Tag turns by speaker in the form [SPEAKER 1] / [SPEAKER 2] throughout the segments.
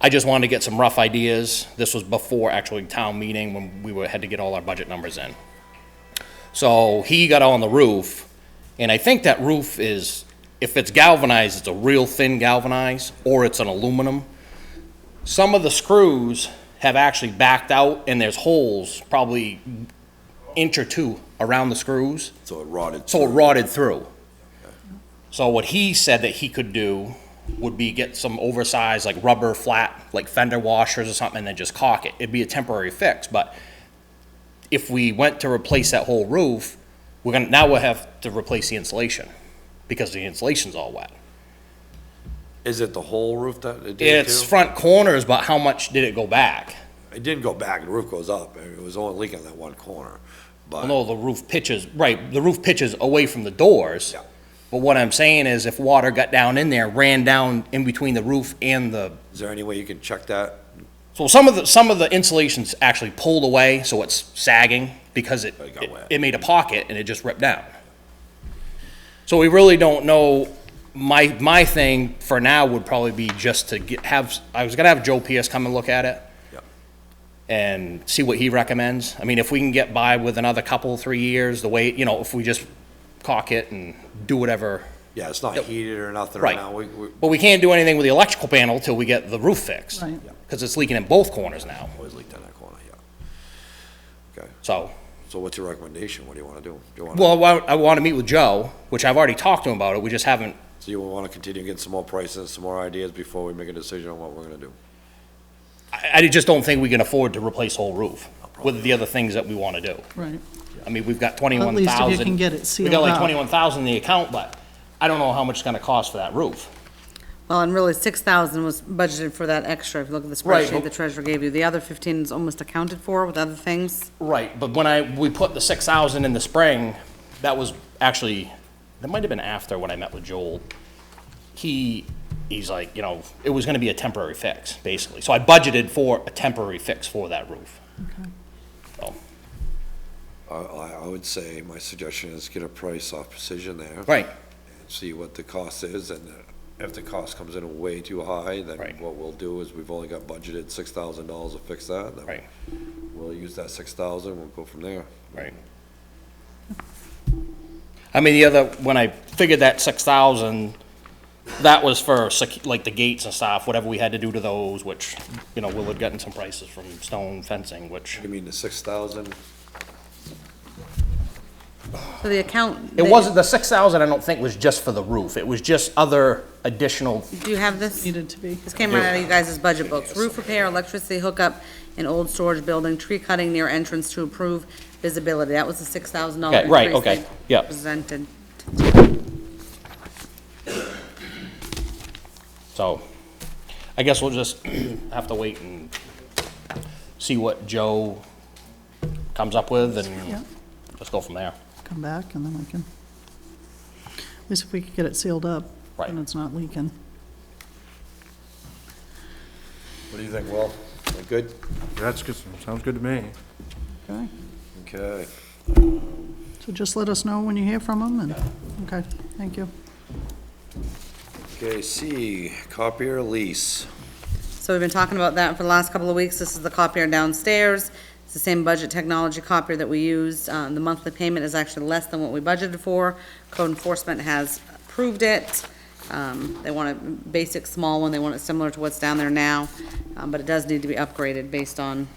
[SPEAKER 1] I just wanted to get some rough ideas. This was before actually town meeting when we were, had to get all our budget numbers in. So he got on the roof, and I think that roof is, if it's galvanized, it's a real thin galvanized, or it's an aluminum. Some of the screws have actually backed out, and there's holes probably inch or two around the screws.
[SPEAKER 2] So it rotted.
[SPEAKER 1] So it rotted through. So what he said that he could do would be get some oversized, like rubber flat, like fender washers or something, and then just caulk it. It'd be a temporary fix, but if we went to replace that whole roof, we're gonna, now we'll have to replace the insulation, because the insulation's all wet.
[SPEAKER 2] Is it the whole roof that it did
[SPEAKER 1] It's
[SPEAKER 2] too?
[SPEAKER 1] front corners, but how much did it go back?
[SPEAKER 2] It didn't go back, the roof goes up, it was only leaking that one corner, but,
[SPEAKER 1] Although the roof pitches, right, the roof pitches away from the doors.
[SPEAKER 2] Yeah.
[SPEAKER 1] But what I'm saying is if water got down in there, ran down in between the roof and the
[SPEAKER 2] is there any way you can check that?
[SPEAKER 1] So some of the, some of the insulation's actually pulled away, so it's sagging because it,
[SPEAKER 2] It got
[SPEAKER 1] it-
[SPEAKER 2] wet.
[SPEAKER 1] it made a pocket and it just ripped down. So we really don't know, my, my thing for now would probably be just to get, have, I was gonna have Joe Pierce come and look at it
[SPEAKER 2] Yeah.
[SPEAKER 1] and see what he recommends. I mean, if we can get by with another couple, three years, the way, you know, if we just caulk it and do whatever.
[SPEAKER 2] Yeah, it's not heated or nothing right
[SPEAKER 1] Right.
[SPEAKER 2] now, we, we
[SPEAKER 1] But we can't do anything with the electrical panel till we get the roof fixed.
[SPEAKER 3] Right.
[SPEAKER 1] Cause it's leaking in both corners now,
[SPEAKER 2] always leaked in that corner, yeah. Okay,
[SPEAKER 1] so.
[SPEAKER 2] so what's your recommendation, what do you wanna do? Do you wanna,
[SPEAKER 1] Well, I- I want to meet with Joe, which I've already talked to him about it, we just haven't,
[SPEAKER 2] so you wanna continue getting some more prices, some more ideas before we make a decision on what we're gonna do?
[SPEAKER 1] I I just don't think we can afford to replace whole roof with the other things that we want to do.
[SPEAKER 3] Right.
[SPEAKER 1] I mean, we've got 21,000.
[SPEAKER 3] can get it
[SPEAKER 1] we got
[SPEAKER 3] sealed
[SPEAKER 1] like
[SPEAKER 3] up.
[SPEAKER 1] 21,000 in the account, but I don't know how much it's going to cost for that roof.
[SPEAKER 4] Well, and really, six thousand was budgeted for that extra, if you look at the
[SPEAKER 1] Right, but-
[SPEAKER 4] spreadsheet the treasurer gave you. The other fifteen is almost accounted for with other things.
[SPEAKER 1] Right, but when I, we put the 6,000 in the spring, that was actually, that might have been after when I met with Joel. He, he's like, you know, it was going to be a temporary fix, basically. So I budgeted for a temporary fix for that roof. So,
[SPEAKER 2] I, I, I would say, my suggestion is get a price off Precision there.
[SPEAKER 1] Right.
[SPEAKER 2] see what the cost is, and uh, if the cost comes in way too high, then
[SPEAKER 1] Right.
[SPEAKER 2] what we'll do is we've only got budgeted six thousand dollars to fix that. then
[SPEAKER 1] Right.
[SPEAKER 2] We'll use that six thousand, we'll go from there.
[SPEAKER 1] Right. I mean, the other, when I figured that six thousand, that was for sec- like the gates and stuff, whatever we had to do to those, which, you know, Will had gotten some prices from stone fencing, which,
[SPEAKER 2] You mean the six thousand?
[SPEAKER 4] So the account.
[SPEAKER 1] it
[SPEAKER 4] they-
[SPEAKER 1] wasn't, the six thousand I don't think was just for the roof, it was just other additional,
[SPEAKER 4] Do you have this?
[SPEAKER 3] Needed to be.
[SPEAKER 4] This came right out of you guys' budget books. Roof repair, electricity hookup, and old storage building, tree cutting near entrance to improve visibility. That was the six thousand dollar
[SPEAKER 1] Okay,
[SPEAKER 4] increase.
[SPEAKER 1] right, okay,
[SPEAKER 4] they
[SPEAKER 1] yep.
[SPEAKER 4] Presented.
[SPEAKER 1] so. I guess we'll just have to wait and see what Joe comes up with
[SPEAKER 3] Yeah,
[SPEAKER 1] and just go from there.
[SPEAKER 3] come back and then we can, at least if we could get it sealed up.
[SPEAKER 1] Right.
[SPEAKER 3] And it's not leaking.
[SPEAKER 2] What do you think, Will? Am I Good?
[SPEAKER 5] That's good, sounds good to me.
[SPEAKER 3] Okay.
[SPEAKER 2] Okay.
[SPEAKER 3] So just let us know when you hear from them and, okay, thank you.
[SPEAKER 2] Okay, C, copier lease.
[SPEAKER 4] So we've been talking about that for the last couple of weeks. This is the copier downstairs. It's the same budget technology copier that we used. Um, the monthly payment is actually less than what we budgeted for. Code enforcement has approved it. Um, they want a basic small one. They want it similar to what's down there now. Um, but it does need to be upgraded based on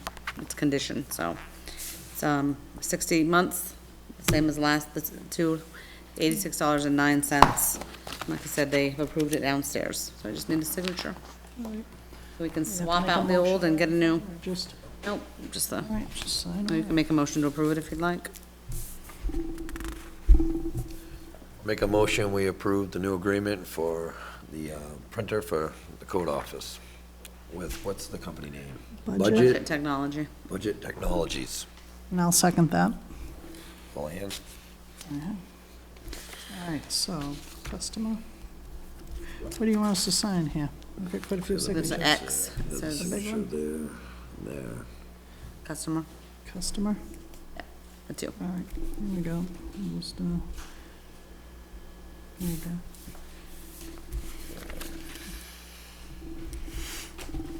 [SPEAKER 4] its condition, so. It's, um, sixty months, same as last, the two, eighty-six dollars and nine cents. Like I said, they approved it downstairs, so I just need a signature. We
[SPEAKER 3] have
[SPEAKER 4] can
[SPEAKER 3] to
[SPEAKER 4] swap
[SPEAKER 3] make a
[SPEAKER 4] out the old and get a new,
[SPEAKER 3] Just,
[SPEAKER 4] nope, just the,
[SPEAKER 3] all right, just sign
[SPEAKER 4] or you
[SPEAKER 3] it.
[SPEAKER 4] can make a motion to approve it if you'd like.
[SPEAKER 2] Make a motion, we approve the new agreement for the uh, printer for the code office with, what's the company name?
[SPEAKER 3] Budget.
[SPEAKER 4] Budget Technology.
[SPEAKER 2] Budget Technologies.
[SPEAKER 3] And I'll second that.
[SPEAKER 2] All hands?
[SPEAKER 3] All right, so customer. What do you want us to sign here? We've got quite a few
[SPEAKER 4] There's an
[SPEAKER 3] signatures.
[SPEAKER 4] X, It says
[SPEAKER 3] big one?
[SPEAKER 2] There, there.
[SPEAKER 4] customer,
[SPEAKER 3] Customer,
[SPEAKER 4] a two.
[SPEAKER 3] all right, here we go. Almost, uh, There you go.